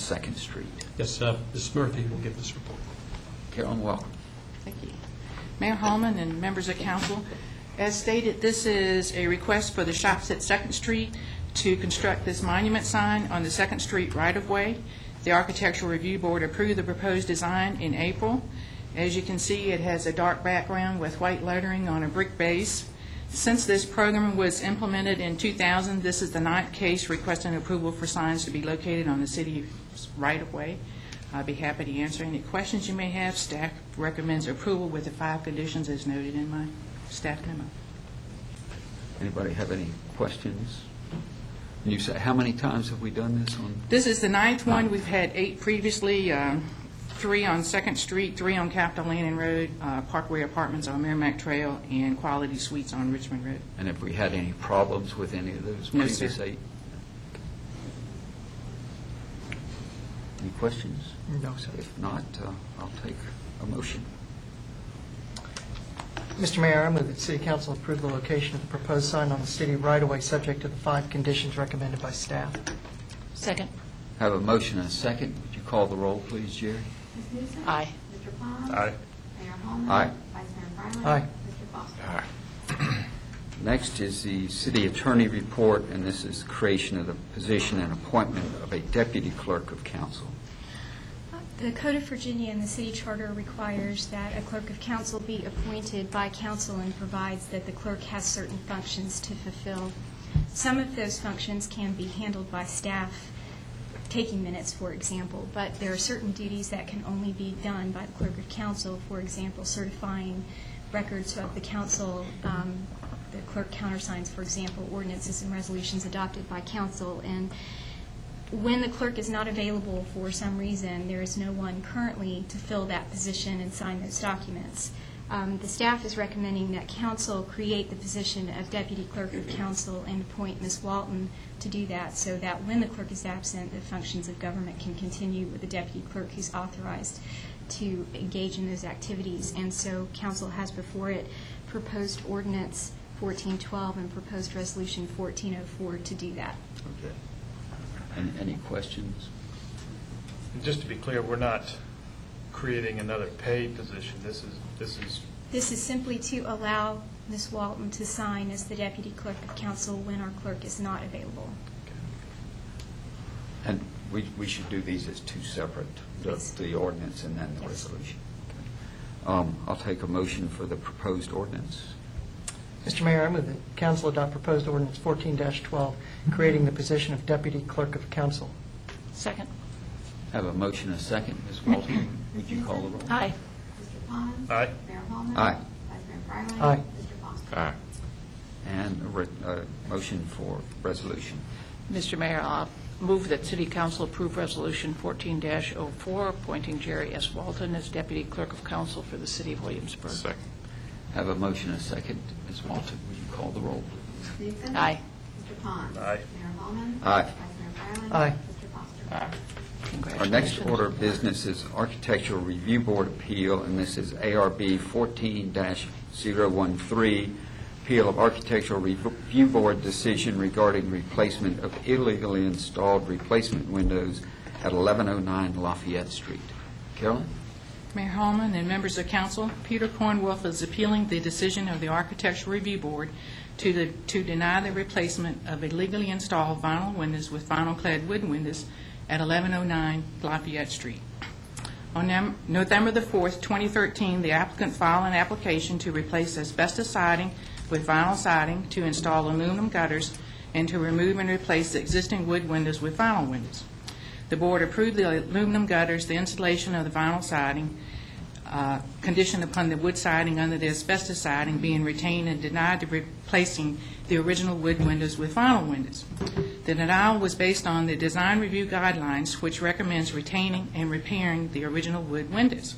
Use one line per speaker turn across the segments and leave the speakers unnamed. Second Street.
Yes, uh, Ms. Murphy will give this report.
Carolyn, welcome.
Thank you. Mayor Holman and members of council, as stated, this is a request for the Shops at Second Street to construct this monument sign on the Second Street right-of-way. The Architectural Review Board approved the proposed design in April. As you can see, it has a dark background with white lettering on a brick base. Since this program was implemented in 2000, this is the ninth case requesting approval for signs to be located on the city's right-of-way. I'd be happy to answer any questions you may have. Staff recommends approval with the five conditions as noted in my staff memo.
Anybody have any questions? And you say, how many times have we done this on?
This is the ninth one. We've had eight previously, um, three on Second Street, three on Capitol Landing Road, uh, Parkway Apartments on Merrimack Trail, and Quality Suites on Richmond Road.
And have we had any problems with any of those
No, sir.
previous eight? Any questions?
No, sir.
If not, uh, I'll take a motion.
Mr. Mayor, I move that City Council approve the location of the proposed sign on the city right-of-way, subject to the five conditions recommended by staff.
Second.
Have a motion and a second. Would you call the roll, please, Jerry?
Ms. Newsom.
Aye.
Mr. Pond.
Aye.
Mayor Holman.
Aye.
Vice Mayor Bryan.
Aye.
Mr. Foster.
Next is the city attorney report, and this is creation of the position and appointment of a deputy clerk of council.
The Code of Virginia and the city charter requires that a clerk of council be appointed by council and provides that the clerk has certain functions to fulfill. Some of those functions can be handled by staff, taking minutes, for example, but there are certain duties that can only be done by the clerk of council, for example, certifying records of the council, um, the clerk countersigns, for example, ordinances and resolutions adopted by council, and when the clerk is not available for some reason, there is no one currently to fill that position and sign those documents. Um, The staff is recommending that council create the position of deputy clerk of council and appoint Ms. Walton to do that, so that when the clerk is absent, the functions of government can continue with the deputy clerk who's authorized to engage in those activities. And so council has before it proposed ordinance 1412 and proposed resolution 1404 to do that.
Okay. And any questions?
And just to be clear, we're not creating another paid position. This is, this is,
This is simply to allow Ms. Walton to sign as the deputy clerk of council when our clerk is not available.
And we, we should do these as two separate, the,
Yes.
the ordinance and then the
Yes.
resolution. Okay. Um, I'll take a motion for the proposed ordinance.
Mr. Mayor, I move that council adopt proposed ordinance 14-12, creating the position of deputy clerk of council.
Second.
Have a motion and a second. Ms. Walton, would you call the
Uh,
roll?
Aye.
Mr. Pond.
Aye.
Mayor Holman.
Aye.
Vice Mayor Bryan.
Aye.
Mr. Foster.
And a, re- a motion for resolution.
Mr. Mayor, I move that City Council approve Resolution 14-04, appointing Jerry S. Walton as Deputy Clerk of Council for the City of Williamsburg. Second.
Have a motion and a second. Ms. Walton, would you call the roll, please?
Ms. Newsom.
Aye.
Mr. Pond.
Aye.
Mayor Holman.
Aye.
Vice Mayor Bryan.
Aye.
Mr. Foster.
Our next
Congratulations.
order of business is Architectural Review Board appeal, and this is ARB 14-013, appeal of Architectural Review Board decision regarding replacement of illegally installed replacement windows at 1109 Lafayette Street. Carolyn?
Mayor Holman and members of council, Peter Cornwolf is appealing the decision of the Architectural Review Board to the- to deny the replacement of illegally installed vinyl windows with vinyl-clad wood windows at 1109 Lafayette Street. On Nam- November the 4th, 2013, the applicant filed an application to replace asbestos siding with vinyl siding, to install aluminum gutters, and to remove and replace the existing wood windows with vinyl windows. The board approved the aluminum gutters, the installation of the vinyl siding, uh, conditioned upon the wood siding under the asbestos siding being retained and denied to replacing the original wood windows with vinyl windows. The denial was based on the design review guidelines, which recommends retaining and repairing the original wood windows.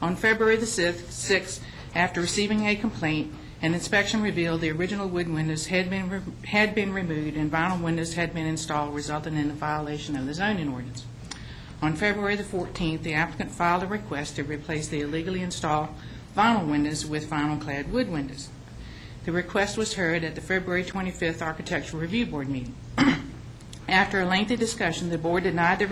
On February the 6th, 6th, after receiving a complaint, an inspection revealed the original wood windows had been, re- had been removed and vinyl windows had been installed, resulting in a violation of the zoning ordinance. On February the 14th, the applicant filed a request to replace the illegally installed vinyl windows with vinyl-clad wood windows. The request was heard at the February 25th Architectural Review Board meeting. After a lengthy discussion, the board denied the